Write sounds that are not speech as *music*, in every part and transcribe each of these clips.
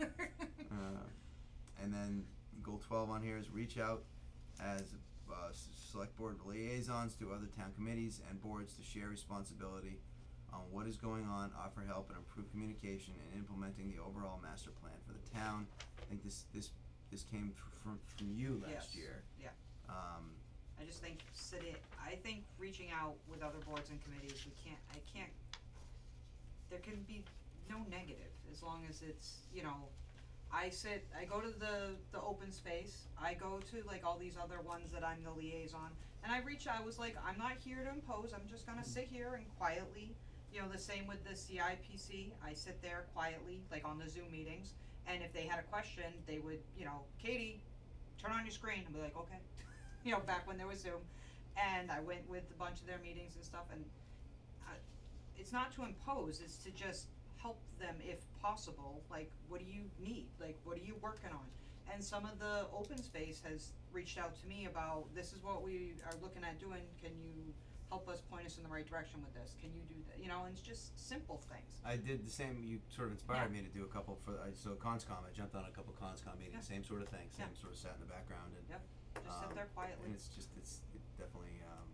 E *laughs* Uh, then goal twelve on here is reach out as uh, s- select board liaisons to other town committees and boards to share responsibility on what is going on, offer help, and improve communication in implementing the overall master plan for the town. I think this this this came fr- from from you last Yes, year. yeah. Um, I just think city, I think reaching out with other boards and committees, we can't, I can't, there can be no negative, as long as it's, you know, I sit, I go to the, the open space, I go to like all these other ones that I'm the liaison, and I reach, I was like, I'm not here to impose, I'm just gonna sit here and quietly, you know, the same with the CIPC, I sit there quietly, like on the Zoom meetings, and if they had a question, they would, you know, Katie, turn on your screen, and be like, okay, you know, back when there was Zoom, and I went with a bunch of their meetings and stuff, and I, it's not to impose, it's to just help them if possible, like, what do you need, like, what are you working on? And some of the open space has reached out to me about, this is what we are looking at doing, can you help us point us in the right direction with this, can you do that, you know, and it's just simple things. I did the same. You sort of inspired me to do a couple for I, so conscom. I jumped on a couple conscom meetings. Yeah. Same sort of thing. Same Yeah. sort of sat in the background and Just sit Um, there and quietly, it's just it's it definitely um,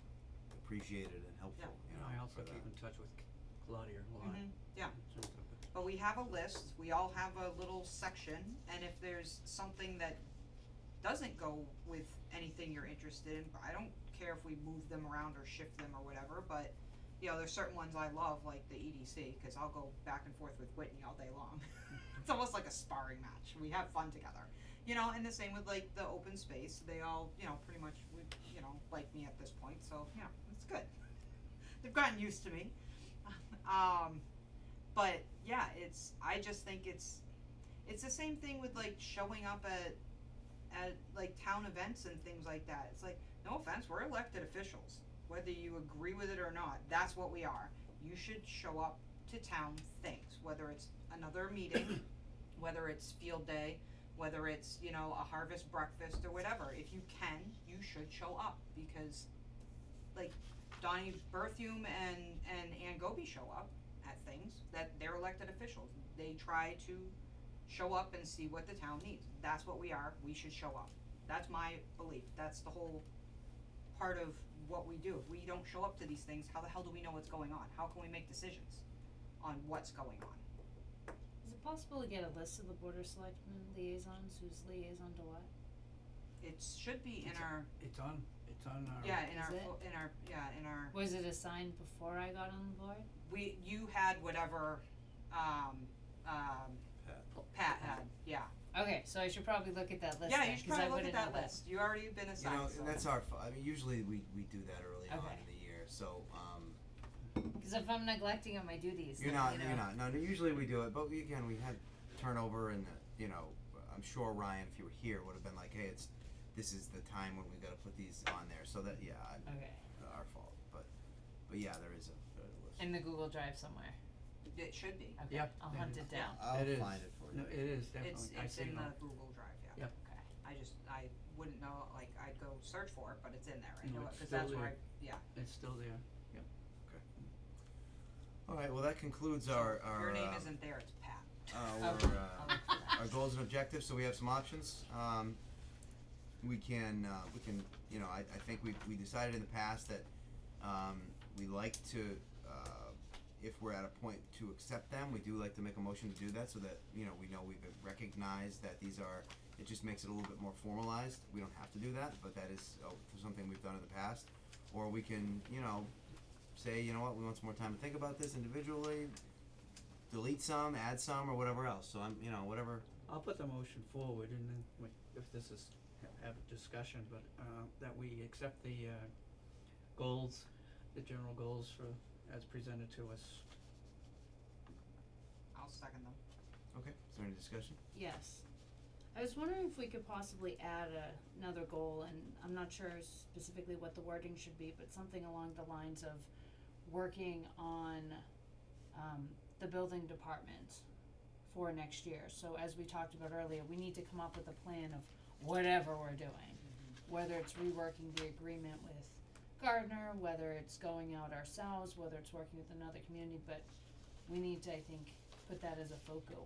appreciated and helpful. You And know, I for also keep that. in touch with Claudia a lot. Mhm, yeah. In terms of but we have a list, we all have a little section, and if there's something that doesn't go with anything you're interested in, I don't care if we move them around or shift them or whatever, but you know, there's certain ones I love, like the EDC, cause I'll go back and forth with Whitney all day long. *laughs* It's almost like a sparring match, we have fun together, you know, and the same with like the open space, they all, you know, pretty much would, you know, like me at this point, so, you know, it's good. *laughs* They've gotten used to me, *laughs* um, but yeah, it's I just think it's it's the same thing with like showing up at at like town events and things like that. It's like no offense, we're elected officials. Whether you agree with it or not, that's what we are. You should show up to town things, whether it's another meeting, whether it's field day, whether it's, you know, a harvest breakfast or whatever. If you can, you should show up because like Donnie Berthume and and Ann Goby show up at things that they're elected officials. They try to show up and see what the town needs. That's what we are. We should show up. That's my belief. That's the whole part of what we do. If we don't show up to these things, how the hell do we know what's going on? How can we make decisions on what's going on? Is it possible to get a list of the border selectmen liaisons, who's liaison to what? It should be in It's a- our It's on, it's on our. yeah, in Is our it? fo- in our yeah, in our Was it assigned before I got on the board? we you had whatever um um Pat. Pat had, yeah. Okay, so I should probably look at that list Yeah, then, you should 'cause I probably look at that wouldn't know list. You already been You know, assigned, so. and that's our. fu- I mean, usually we we do that early on Okay. in the year. So um, Because if I'm neglecting on my duties, you're then, not. you You're know. not. No, no, usually we do it. But we, again, we had turnover, and uh, you know, I'm sure Ryan, if you were here, would have been like, hey, it's this is the time when we got to put these on there. So that yeah, I, Okay, our fault. But but yeah, there is a, a list. in the Google Drive somewhere. It should be. Okay, Yep, I'll there hunt it it is. down. I'll It is. find it for you. No, it It's, is definitely, I it's see in it the all. Google Drive, yeah. Yep. Okay. I just, I wouldn't know, like, I'd go search for it, but it's in there, I No, know it, it's cause still that's where I, there. yeah. It's still there. All right. Well, that concludes So our if our Your name um, isn't there, it's Pat. our, Okay. uh, our goals and objectives, so we have some options. Um, we can, uh, we can, you know, I, I think we, we decided in the past that, um, we like to, uh, if we're at a point to accept them, we do like to make a motion to do that so that, you know, we know we've recognized that these are, it just makes it a little bit more formalized. We don't have to do that, but that is, uh, something we've done in the past. Or we can, you know, say, you know what, we want some more time to think about this individually, delete some, add some, or whatever else. So I'm, you know, whatever. I'll put the motion forward and then we, if this is, ha- have a discussion, but, uh, that we accept the, uh, goals, the general goals for, as presented to us. I'll second them. Okay. Is there any discussion? Yes. I was wondering if we could possibly add a, another goal, and I'm not sure specifically what the wording should be, but something along the lines of working on, um, the building department for next year. So as we talked about earlier, we need to come up with a plan of whatever we're doing. Whether it's reworking the agreement with Gardner, whether it's going out ourselves, whether it's working with another community, but we need to, I think, put that as a focal